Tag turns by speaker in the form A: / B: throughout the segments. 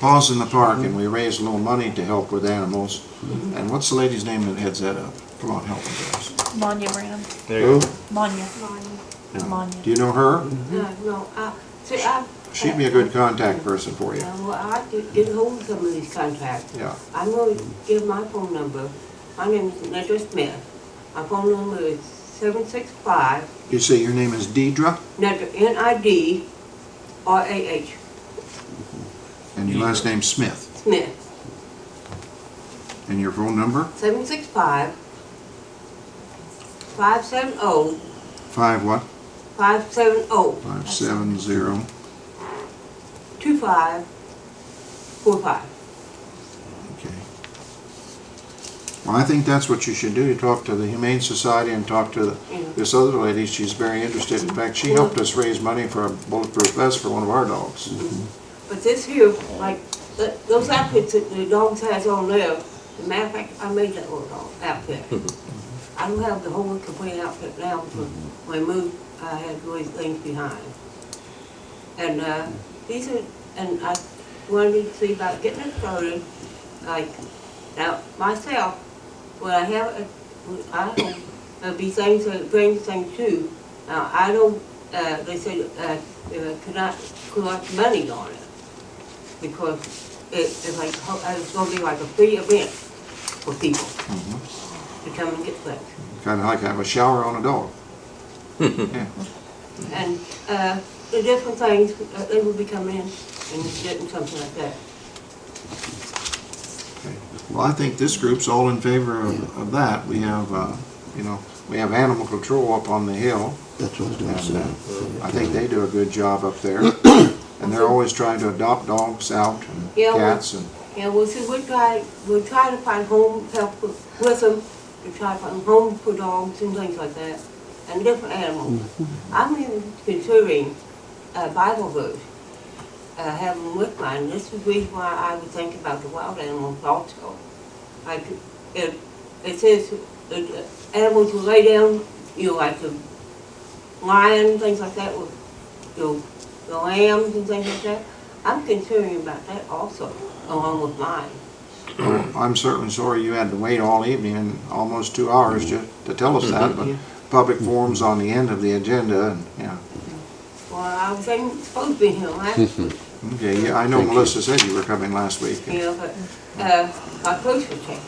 A: Paws in the Park, and we raised a little money to help with animals. And what's the lady's name that heads that up? Come on, help me guys.
B: Manya Ram,
C: There you
A: Who?
C: go.
B: Manya,
D: Mine,
A: No.
B: Manya.
A: Do you know her?
D: uh,
A: Mm-hmm.
D: no, I, see, I.
A: She'd be a good contact person for you.
D: Uh, Well, I did get hold of some of these contracts.
A: Yeah.
D: I'm gonna give my phone number. My name is Nedra Smith. My phone number is seven six five,
A: You say your name is Deidre,
D: Nedra, N I D R A H,
A: and your last name's Smith,
D: Smith,
A: and your phone number?
D: seven six five five seven oh,
A: Five what?
D: five seven oh,
A: Five seven zero.
D: two five four five.
A: Okay. Well, I think that's what you should do, you talk to the Humane Society and talk to the-
D: Yeah.
A: this other lady, she's very interested. In fact, she helped us raise money for a bulletproof vest for one of our dogs.
D: But this here, like, th- those outfits that the dogs has on there, as a matter of fact, I made that little dog outfit. I don't have the whole complete outfit now, but when I moved, I had these things behind. And, uh, these are, and I wanted to see about getting it started, like, now, myself, when I have, a- when I hope, there'll be things, that- bring things too. Now, I don't, uh, they said, uh, uh, could not collect money on it. Because it, it's like, ho- uh, it's gonna be like a free event for people to come and get things.
A: Kinda like have a shower on a dog. Yeah.
D: And, uh, the different things, uh, they will be coming in and getting something like that.
A: Okay. Well, I think this group's all in favor of, of that. We have, uh, you know, we have animal control up on the hill.
E: That's what I was gonna
A: And, uh,
E: say.
A: I think they do a good job up there. And they're always trying to adopt dogs out and
D: Yeah, well-
A: cats and,
D: Yeah, well, see, we're trying, we're trying to find home help with with them, we're trying to find home for dogs and things like that, and different animals. I'm even considering a Bible verse, uh, having with mine, this is the reason why I would think about the wild animals also. Like, it, it says, uh, animals will lay down, you know, like the lion, things like that, with, you know, the lambs and things like that. I'm considering about that also, along with mine.
A: Oh, I'm certainly sorry you had to wait all evening and almost two hours to, to tell us that, but public forum's on the end of the agenda and, yeah.
D: Well, I was ain't supposed to be here last week,
E: Mm-hmm.
A: Okay, yeah, I know Melissa said you were coming last week.
D: you know, but, uh, my clothes were taken.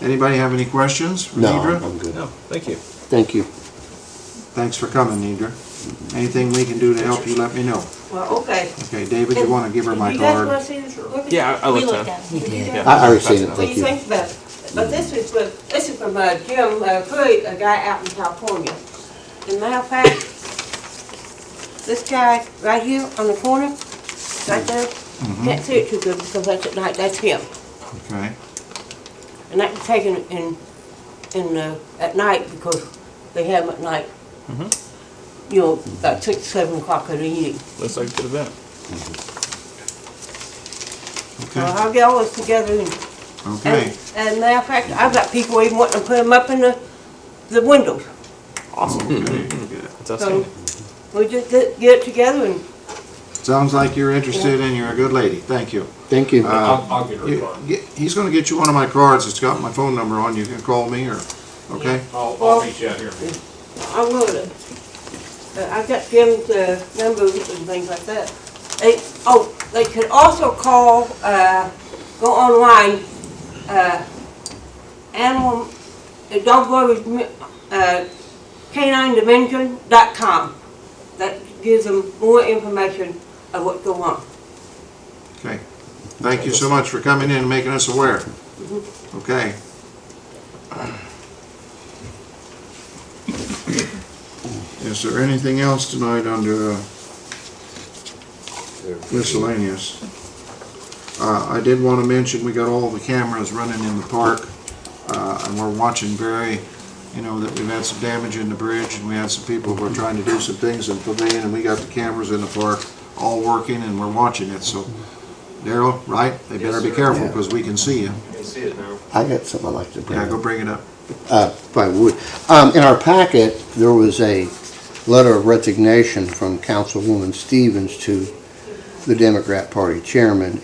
A: Anybody have any questions for
E: No,
A: Nidra?
E: I'm good.
C: No, thank you.
E: Thank you.
A: Thanks for coming, Nidra. Anything we can do to help you, let me know.
D: Well, okay.
A: Okay, David, you wanna give her my
D: You guys
A: card?
D: wanna see this? Look at-
C: Yeah, I, I
B: We
C: looked
B: looked
C: at
B: at
C: it.
B: it.
D: You guys-
E: I already seen it,
D: What do
E: thank
D: you
E: you.
D: think about, it? but this is from, this is from, uh, Jim, uh, Curry, a guy out in California. As a matter of fact, this guy right here on the corner, right there, can't see it too good because that's at night, that's him.
A: Mm-hmm. Okay,
D: And that was taken in, in, uh, at night because they have them at night. You know, about six, seven o'clock in the evening.
C: Looks like a good event.
D: So
A: okay,
D: I'll get all this together and,
A: okay.
D: and, and matter of fact, I've got people even wanting to put them up in the, the windows.
C: Awesome.
A: Okay, good.
C: It's outstanding.
D: We just get get it together and
A: Sounds like you're interested and you're a good lady. Thank you.
E: Thank you.
A: Uh,
F: I'll, I'll get her a
A: you-
F: card.
A: get- He's gonna get you one of my cards. It's got my phone number on. You can call me or, okay?
F: I'll, I'll reach out here.
D: I will, uh, I've got Jim's, uh, numbers and things like that. They, oh, they could also call, uh, go online, uh, animal, uh, dog lovers, Mi- uh, caninedimension.com. That gives them more information of what go on.
A: Okay. Thank you so much for coming in and making us aware. Okay. Is there anything else tonight under uh, miscellaneous? Uh, I did want to mention, we got all the cameras running in the park, uh, and we're watching very, you know, that we've had some damage in the bridge, and we had some people who were trying to do some things in Pavilion, and we got the cameras in the park all working, and we're watching it, so Daryl, right? They better be
F: sir.
A: careful,
E: Yeah.
A: because we can see you.
F: You can see it now.
E: I got something I'd like to bring
A: Yeah, go
E: up,
A: bring it up.
E: uh, if I would. Um, in our packet, there was a letter of resignation from Councilwoman Stevens to the Democrat Party chairman